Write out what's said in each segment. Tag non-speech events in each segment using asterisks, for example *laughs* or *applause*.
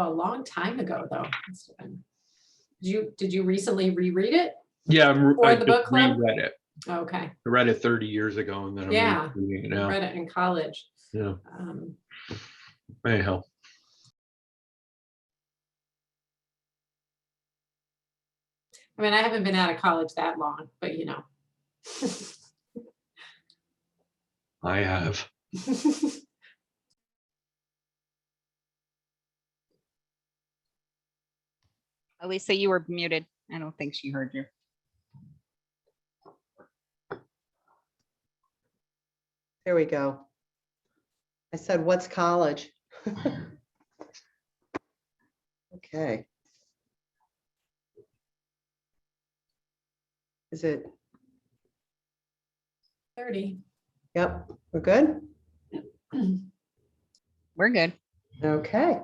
a long time ago, though. Must have been- Did you, did you recently reread it? Yeah, I'm, re- Or I the just book club? reread it. Okay, I read it 30 years ago and then Yeah. I'm reading it now. read it in college. Yeah, Um, anyhow. I mean, I haven't been out of college that long, but you know. *laughs* I have. Elisa, you were muted. I don't think she heard you. There we go. I said, what's college? *laughs* Okay. Is it, Thirty. *clears throat* yep, we're good? We're good. Okay.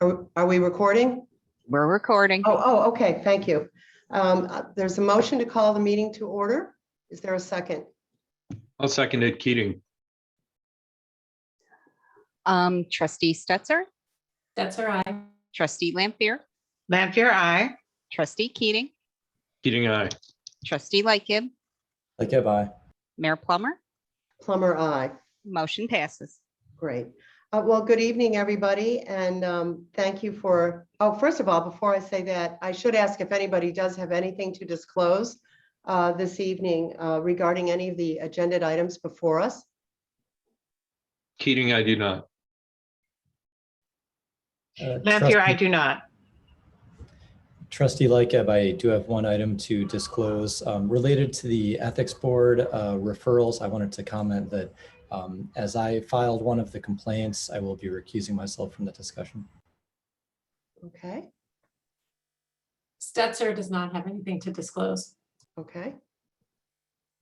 Are are we recording? We're recording. Oh, oh, okay, thank you. Um, uh, There's a motion to call the meeting to order. Is there a second? I'll second it, Keating. Um, trustee Stetser, That's all right. trustee Lampier, Lampier, aye. trustee Keating, Keating, aye. trustee Lightgib, Like, bye. Mayor Plummer, Plummer, aye. motion passes. Great. Uh, Well, good evening, everybody, and um, thank you for, oh, first of all, before I say that, I should ask if anybody does have anything to disclose uh, this evening uh, regarding any of the agenda items before us. Keating, I do not. Uh, Lampier, I do not. Trustee Lightgib, I do have one item to disclose um, related to the Ethics Board uh, referrals. I wanted to comment that um, as I filed one of the complaints, I will be recusing myself from the discussion. Okay, Stetzer does not have anything to disclose. okay.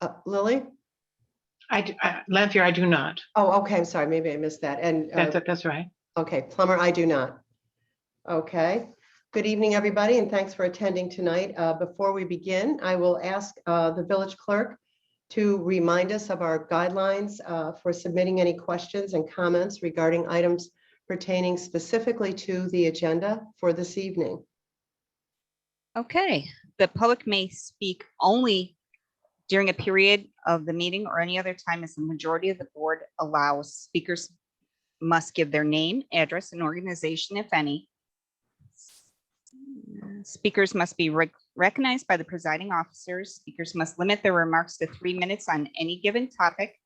Uh, Lily? I, d- I- Lampier, I do not. Oh, okay, I'm sorry, maybe I missed that. And, That's, uh, that's right. okay, Plummer, I do not. Okay. Good evening, everybody, and thanks for attending tonight. Uh, Before we begin, I will ask uh, the village clerk to remind us of our guidelines uh, for submitting any questions and comments regarding items pertaining specifically to the agenda for this evening. Okay, the public may speak only during a period of the meeting or any other time as the majority of the board allows. Speakers must give their name, address, and organization, if any. Speakers must be rec- recognized by the presiding officers. Speakers must limit their remarks to three minutes on any given topic.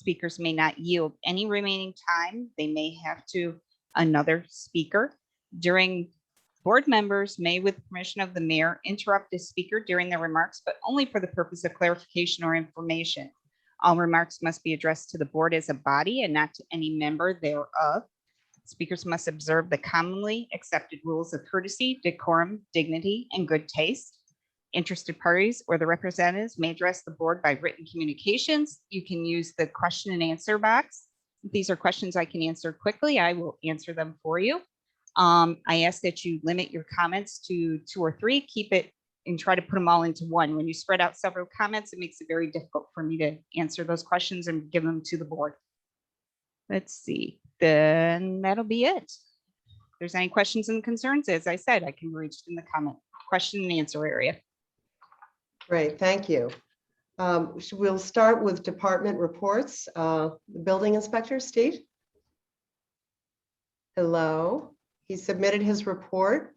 Speakers may not yield any remaining time. They may have to another speaker. During Board members may, with permission of the mayor, interrupt a speaker during their remarks, but only for the purpose of clarification or information. All remarks must be addressed to the board as a body and not to any member thereof. Speakers must observe the commonly accepted rules of courtesy, decorum, dignity, and good taste. Interested parties or the representatives may address the board by written communications. You can use the question and answer box. These are questions I can answer quickly. I will answer them for you. Um, I ask that you limit your comments to two or three, keep it and try to put them all into one. When you spread out several comments, it makes it very difficult for me to answer those questions and give them to the board. Let's see, then that'll be it. If there's any questions and concerns, as I said, I can be reached in the comment, question and answer area. Great, thank you. Um, sh- We'll start with department reports. Uh, the Building inspector, Steve? Hello, he submitted his report.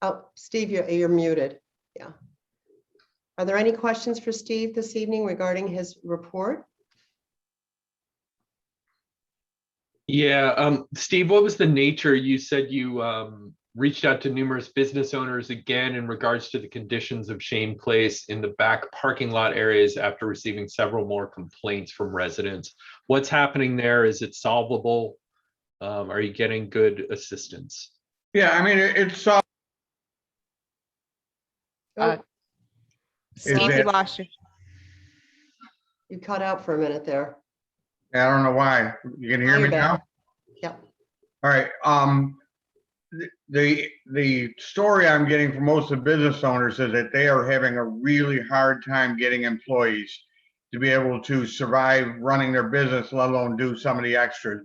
Oh, Steve, you're you're muted. Yeah. Are there any questions for Steve this evening regarding his report? Yeah, um, Steve, what was the nature? You said you um reached out to numerous business owners again in regards to the conditions of Shane Place in the back parking lot areas after receiving several more complaints from residents. What's happening there? Is it solvable? Um, are you getting good assistance? Yeah, I mean, it- it's, uh, Oh, Uh, Steve, we there- lost you. You cut out for a minute there. I don't know why. You can hear You're me now? back. Yep. All right, um, th- the, the story I'm getting from most of the business owners is that they are having a really hard time getting employees to be able to survive running their business, let alone do some of the extras.